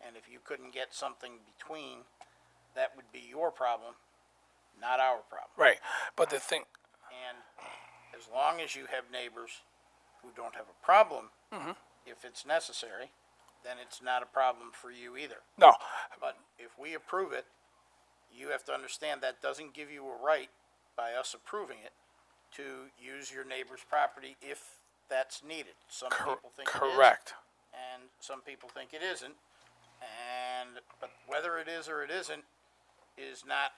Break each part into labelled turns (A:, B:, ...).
A: And if you couldn't get something between, that would be your problem, not our problem.
B: Right, but the thing,
A: And as long as you have neighbors who don't have a problem,
B: Mm-hmm.
A: if it's necessary, then it's not a problem for you either.
B: no,
A: But if we approve it, you have to understand that doesn't give you a right by us approving it to use your neighbor's property if that's needed. Some
B: cor-
A: people think it is.
B: correct.
A: And some people think it isn't. And, but whether it is or it isn't is not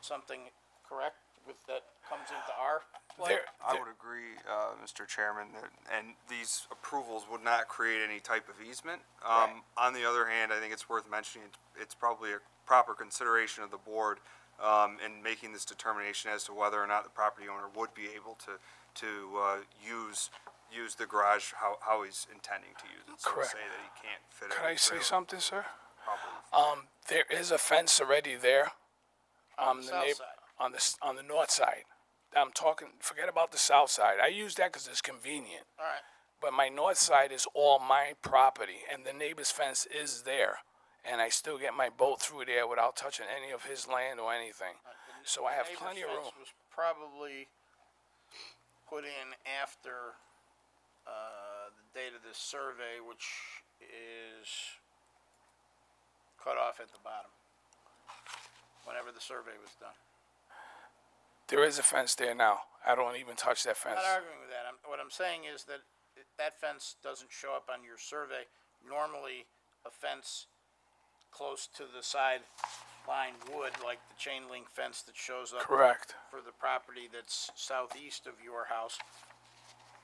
A: something correct with, that comes into our play.
B: There,
C: I would agree, uh, Mr. Chairman, that, and these approvals would not create any type of easement. Um, on the other hand, I think it's worth mentioning, it's- it's probably a proper consideration of the board, um, in making this determination as to whether or not the property owner would be able to, to, uh, use, use the garage how, how he's intending to use it. So to
B: Correct.
C: say that he can't fit it.
B: can I say something, sir?
C: something?
B: Um, there is a fence already there. On
A: the
B: the
A: south
B: neigh-
A: side.
B: On the, s- on the north side. I'm talking, forget about the south side. I use that because it's convenient.
A: All right,
B: But my north side is all my property, and the neighbor's fence is there. And I still get my boat through there without touching any of his land or anything. So I have
A: neighbor's
B: plenty of
A: fence
B: room.
A: Was probably put in after, uh, the date of this survey, which is cut off at the bottom. Whenever the survey was done.
B: There is a fence there now. I don't even touch that fence.
A: Not arguing with that. I'm, what I'm saying is that it- that fence doesn't show up on your survey. Normally, a fence close to the side line would, like the chain link fence that shows up
B: Correct.
A: for the property that's southeast of your house.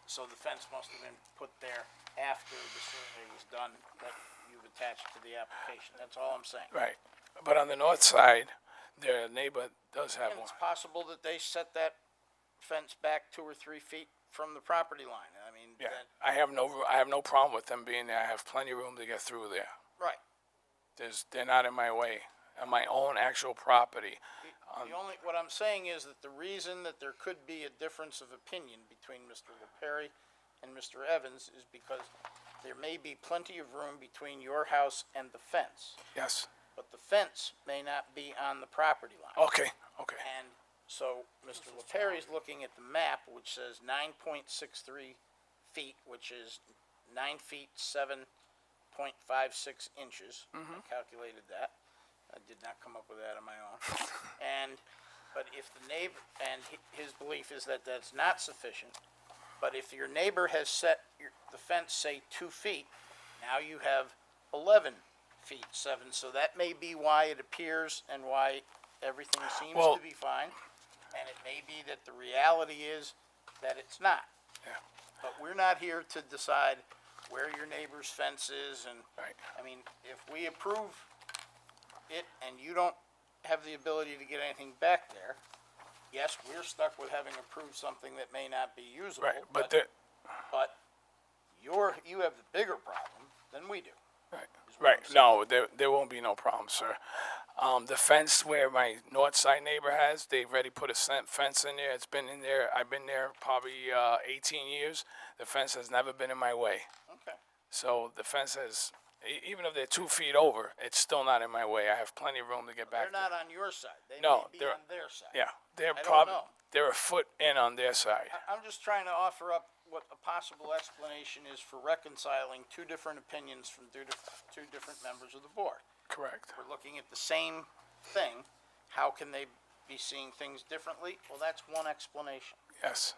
A: So the fence must have been put there after the survey was done that you've attached to the application. That's all I'm saying.
B: Right. But on the north side, their neighbor does have
A: And
B: one.
A: it's possible that they set that fence back two or three feet from the property line. I mean,
B: Yeah.
A: that,
B: I have no, ro- I have no problem with them being there. I have plenty of room to get through there.
A: right.
B: There's, they're not in my way. On my own actual property.
A: The only, what I'm saying is that the reason that there could be a difference of opinion between Mr. LaPerry and Mr. Evans is because there may be plenty of room between your house and the fence,
B: Yes.
A: but the fence may not be on the property line.
B: Okay, okay.
A: And so Mr. LaPerry's looking at the map, which says nine point six three feet, which is nine feet, seven point five six inches. I calculated that. I did not come up with that on my own. And, but if the neighbor, and hi- his belief is that that's not sufficient, but if your neighbor has set your, the fence, say, two feet, now you have eleven feet, seven, so that may be why it appears and why everything seems
B: Well-
A: to be fine. And it may be that the reality is that it's not.
B: Yeah.
A: But we're not here to decide where your neighbor's fence is and,
B: Right.
A: I mean, if we approve it and you don't have the ability to get anything back there, yes, we're stuck with having approved something that may not be usable.
B: Right, but there,
A: But you're, you have the bigger problem than we do.
B: Right.
A: what
B: Right.
A: I'm
B: No, there, there won't be no problem, sir. Um, the fence where my north side neighbor has, they've already put a sen- fence in there. It's been in there. I've been there probably uh, 18 years. The fence has never been in my way.
A: Okay.
B: So the fence has, e- even if they're two feet over, it's still not in my way. I have plenty of room to get
A: They're
B: back. there.
A: not on your side. They may
B: No,
A: be
B: they're-
A: on their side.
B: Yeah, they're
A: don't
B: probably
A: know.
B: they're a foot in on their side.
A: I- I'm just trying to offer up what a possible explanation is for reconciling two different opinions from two, dif- two different members of the board.
B: Correct.
A: We're looking at the same thing. How can they be seeing things differently? Well, that's one explanation,
B: Yes.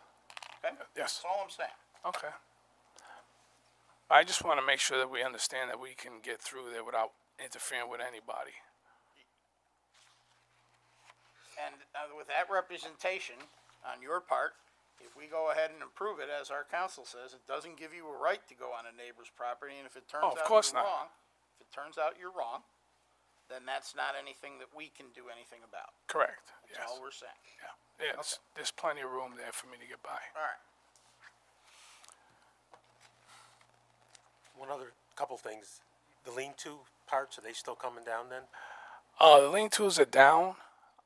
A: okay?
B: Uh, Yes.
A: That's all I'm saying.
B: Okay. I just want to make sure that we understand that we can get through there without interfering with anybody.
A: And uh, with that representation on your part, if we go ahead and approve it, as our council says, it doesn't give you a right to go on a neighbor's property, and if it turns
B: Oh,
A: out
B: of
A: you're
B: course not.
A: wrong, if it turns out you're wrong, then that's not anything that we can do anything about.
B: Correct. Yes.
A: That's all we're saying.
B: Yeah. Yeah, it's- There's plenty of room there for me to get by.
A: All right.
D: One other couple things. The lean-to parts, are they still coming down then?
B: Uh, the lean tools are down.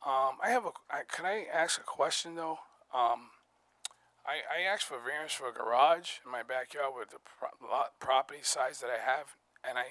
B: Um, I have a. I, can I ask a question though? Um, I, I asked for variance for a garage in my backyard with the pro- lot, property size that I have, and I